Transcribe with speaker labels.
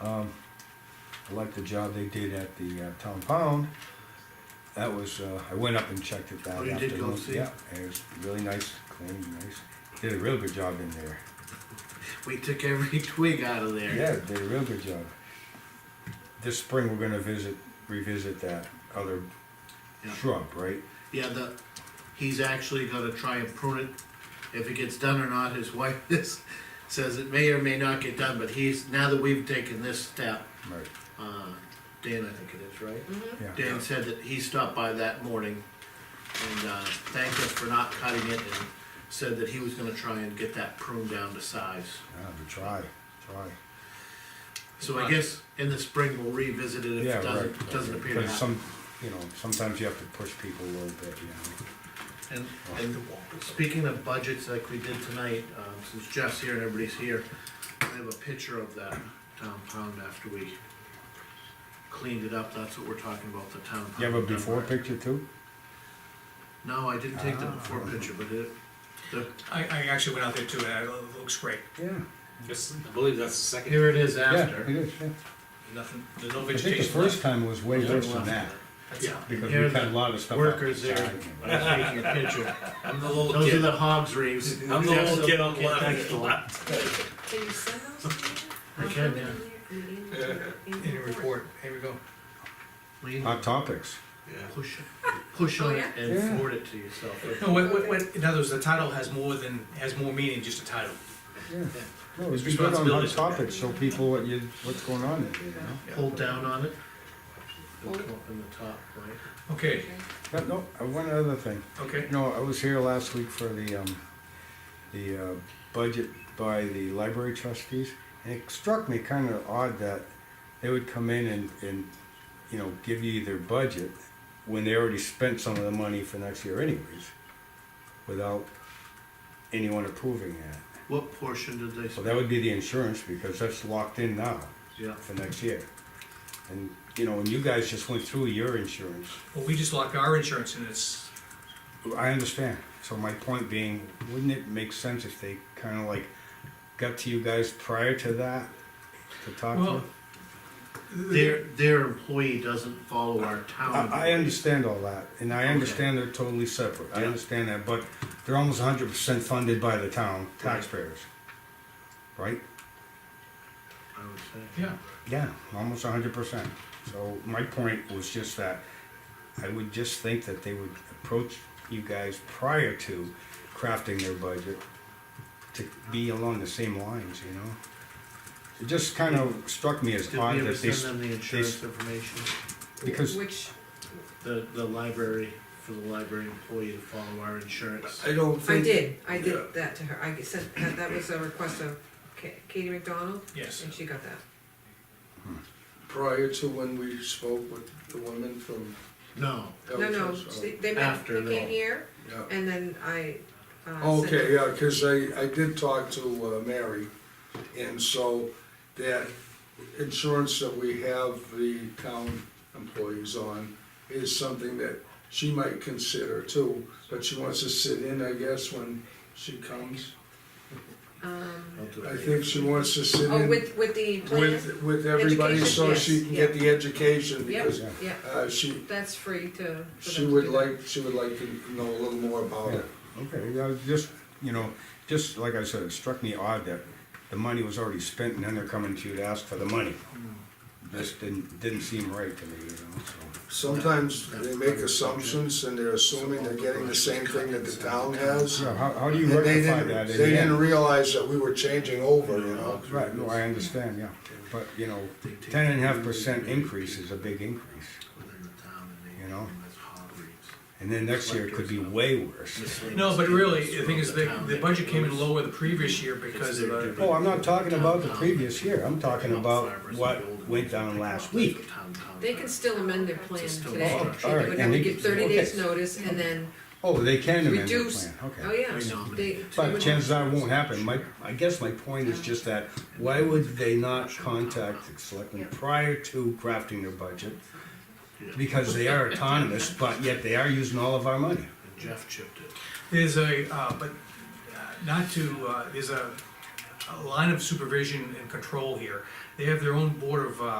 Speaker 1: Um, I like the job they did at the uh, Town Pound. That was, uh, I went up and checked it
Speaker 2: Oh,
Speaker 1: that
Speaker 2: you did go
Speaker 1: afternoon.
Speaker 2: see?
Speaker 1: Yeah, it was really nice, clean, nice. Did a real good job in there.
Speaker 2: We took every twig out of there.
Speaker 1: Yeah, did a real good job. This spring, we're gonna visit, revisit that other
Speaker 2: Yeah.
Speaker 1: shrub, right?
Speaker 2: Yeah, the, he's actually gonna try and prune it, if it gets done or not, his wife is, says it may or may not get done, but he's, now that we've taken this step,
Speaker 1: Right,
Speaker 2: uh, Dan, I think it is, right?
Speaker 1: yeah.
Speaker 2: Dan said that he stopped by that morning and, uh, thanked us for not cutting it and said that he was gonna try and get that pruned down to size.
Speaker 1: Yeah, Ah, we try, try.
Speaker 2: So I guess in the spring, we'll revisit it if
Speaker 1: Yeah,
Speaker 2: it doesn't,
Speaker 1: right.
Speaker 2: doesn't appear to
Speaker 1: Because
Speaker 2: happen.
Speaker 1: Some, you know, sometimes you have to push people a little bit, you know.
Speaker 2: And, and speaking of budgets like we did tonight, um, since Jeff's here and everybody's here, I have a picture of that town pound after we cleaned it up, that's what we're talking about, the town pound.
Speaker 1: You have a before
Speaker 2: Denver.
Speaker 1: picture too?
Speaker 2: No, I didn't take the
Speaker 1: Ah.
Speaker 2: before picture, but it, the,
Speaker 3: I, I actually went out there too, and it looks great.
Speaker 1: Yeah.
Speaker 4: It's- I believe that's the second,
Speaker 2: here it is
Speaker 1: Yeah, it
Speaker 2: after.
Speaker 1: is, yeah.
Speaker 3: Nothing, there's no
Speaker 1: I think the
Speaker 3: vegetation
Speaker 1: first
Speaker 3: left.
Speaker 1: time was way
Speaker 2: Yeah.
Speaker 1: worse than that,
Speaker 3: That's
Speaker 2: Yeah,
Speaker 3: all.
Speaker 1: because
Speaker 2: here
Speaker 1: we
Speaker 2: are
Speaker 1: cut a
Speaker 2: the
Speaker 1: lot of stuff out.
Speaker 2: workers there,
Speaker 1: outside.
Speaker 2: I'm taking a picture,
Speaker 4: I'm the little
Speaker 2: those are
Speaker 4: kid,
Speaker 2: the hogs reeves.
Speaker 4: I'm the
Speaker 2: Jeff's
Speaker 4: little kid on the
Speaker 2: thanks
Speaker 4: left.
Speaker 2: a lot.
Speaker 5: Can you send those to me?
Speaker 2: I
Speaker 5: I'll
Speaker 2: can,
Speaker 5: put them in your- In
Speaker 3: In
Speaker 5: your
Speaker 3: your report, here we go.
Speaker 2: We
Speaker 1: Hot topics.
Speaker 4: Yeah.
Speaker 2: push, push on it and
Speaker 1: Yeah.
Speaker 2: forward it to yourself.
Speaker 3: No, what, what, what, in other words, the title has more than, has more meaning, just a title.
Speaker 1: Yeah. No, it's
Speaker 3: It's
Speaker 1: good on hot
Speaker 3: responsibility.
Speaker 1: topics, show people what you, what's going on in there, you know?
Speaker 2: hold down on it. It'll come up in the top, right?
Speaker 3: Okay,
Speaker 1: But no, uh, one other thing.
Speaker 3: okay.
Speaker 1: No, I was here last week for the, um, the, uh, budget by the library trustees, and it struck me kind of odd that they would come in and, and, you know, give you their budget when they already spent some of the money for next year anyways, without anyone approving that.
Speaker 2: What portion did they
Speaker 1: So
Speaker 2: spend?
Speaker 1: that would be the insurance, because that's locked in now
Speaker 2: Yeah,
Speaker 1: for next year. And, you know, and you guys just went through your insurance,
Speaker 3: Well, we just locked our insurance and it's,
Speaker 1: I understand. So my point being, wouldn't it make sense if they kind of like got to you guys prior to that to talk to?
Speaker 3: well.
Speaker 1: you?
Speaker 2: their, their employee doesn't follow our town.
Speaker 1: I, I understand all that, and I understand they're totally separate. I
Speaker 2: Yeah.
Speaker 1: understand that, but they're almost hundred percent funded by the town taxpayers, right?
Speaker 2: I would say.
Speaker 3: Yeah,
Speaker 1: Yeah, almost hundred percent. So my point was just that I would just think that they would approach you guys prior to crafting their budget to be along the same lines, you know? It just kind of struck me as
Speaker 2: Did
Speaker 1: odd
Speaker 2: we ever
Speaker 1: that they,
Speaker 2: send
Speaker 1: s-
Speaker 2: them the insurance information?
Speaker 1: because,
Speaker 5: Which,
Speaker 2: The, the library, for the library employee to follow our insurance.
Speaker 4: I don't
Speaker 5: I
Speaker 4: think.
Speaker 5: did, I
Speaker 4: Yeah.
Speaker 5: did that to her, I sent, that that was a request of Ka- Katie McDonald,
Speaker 3: yes.
Speaker 5: and she got that.
Speaker 6: prior to when we spoke with the woman from.
Speaker 2: No,
Speaker 5: No, no,
Speaker 6: Elkins,
Speaker 5: they they met,
Speaker 2: After
Speaker 5: they
Speaker 2: the-
Speaker 5: came here,
Speaker 6: oh, yeah.
Speaker 5: and then I, uh, sent
Speaker 6: Oh, Okay,
Speaker 5: her.
Speaker 6: yeah, because I, I did talk to uh, Mary, and so that insurance that we have the town employees on is something that she might consider too, but she wants to sit in, I guess, when she comes.
Speaker 5: Um,
Speaker 2: I'll do it
Speaker 6: I
Speaker 2: later.
Speaker 6: think she wants to sit
Speaker 5: oh,
Speaker 6: in
Speaker 5: with, with the plan,
Speaker 6: with, with everybody so
Speaker 5: Education,
Speaker 6: she
Speaker 5: yes,
Speaker 6: can get the education,
Speaker 5: Yep.
Speaker 6: because
Speaker 1: yeah,
Speaker 5: yeah,
Speaker 6: uh, she,
Speaker 5: that's free to. for them
Speaker 6: She
Speaker 5: to
Speaker 6: would
Speaker 5: do that.
Speaker 6: like, she would like to know a little more about it.
Speaker 1: okay, I was just, you know, just like I said, it struck me odd that the money was already spent and then they're coming to you to ask for the money.
Speaker 2: Mm.
Speaker 1: This didn't, didn't seem right to me, you know, so.
Speaker 6: Sometimes they make assumptions and they're assuming they're getting the same thing that the town has.
Speaker 1: Yeah, how, how do you
Speaker 6: And they
Speaker 1: rectify
Speaker 6: didn't,
Speaker 1: that? in
Speaker 6: they
Speaker 1: the
Speaker 6: didn't
Speaker 1: end?
Speaker 6: realize that we were changing over, you know?
Speaker 1: Right, no, I understand, yeah, but, you know, ten and a half percent increase is a big increase,
Speaker 2: Within the town and they-
Speaker 1: You know?
Speaker 2: and that's hog reefs.
Speaker 1: and then next year it could be way worse.
Speaker 2: Miscellaneous
Speaker 3: No, but really,
Speaker 2: tables
Speaker 3: the thing is,
Speaker 2: throughout
Speaker 3: the,
Speaker 2: town
Speaker 3: the
Speaker 2: that
Speaker 3: budget came in
Speaker 2: goes-
Speaker 3: lower the previous year because of, uh,
Speaker 1: Oh, I'm not talking about the previous year, I'm talking about what went down last week.
Speaker 5: They can still amend their plan
Speaker 2: Just a
Speaker 5: today,
Speaker 2: law.
Speaker 1: Oh, all
Speaker 5: they
Speaker 1: right, and
Speaker 5: would have to
Speaker 1: they
Speaker 5: give
Speaker 1: can-
Speaker 5: thirty
Speaker 1: okay.
Speaker 5: days notice, and then
Speaker 1: Oh, they can amend their
Speaker 5: reduce,
Speaker 1: plan,
Speaker 5: oh,
Speaker 1: okay.
Speaker 5: yes,
Speaker 2: I nominate
Speaker 5: they.
Speaker 2: it.
Speaker 1: But
Speaker 5: would-
Speaker 1: chances are it won't happen, my, I guess my point is just that, why would they not contact the selectmen prior to crafting their budget? Because they are autonomous, but yet they are using all of our money.
Speaker 2: Jeff chipped it.
Speaker 3: there's a, uh, but uh, not to, uh, there's a, a line of supervision and control here. They have their own board of, uh,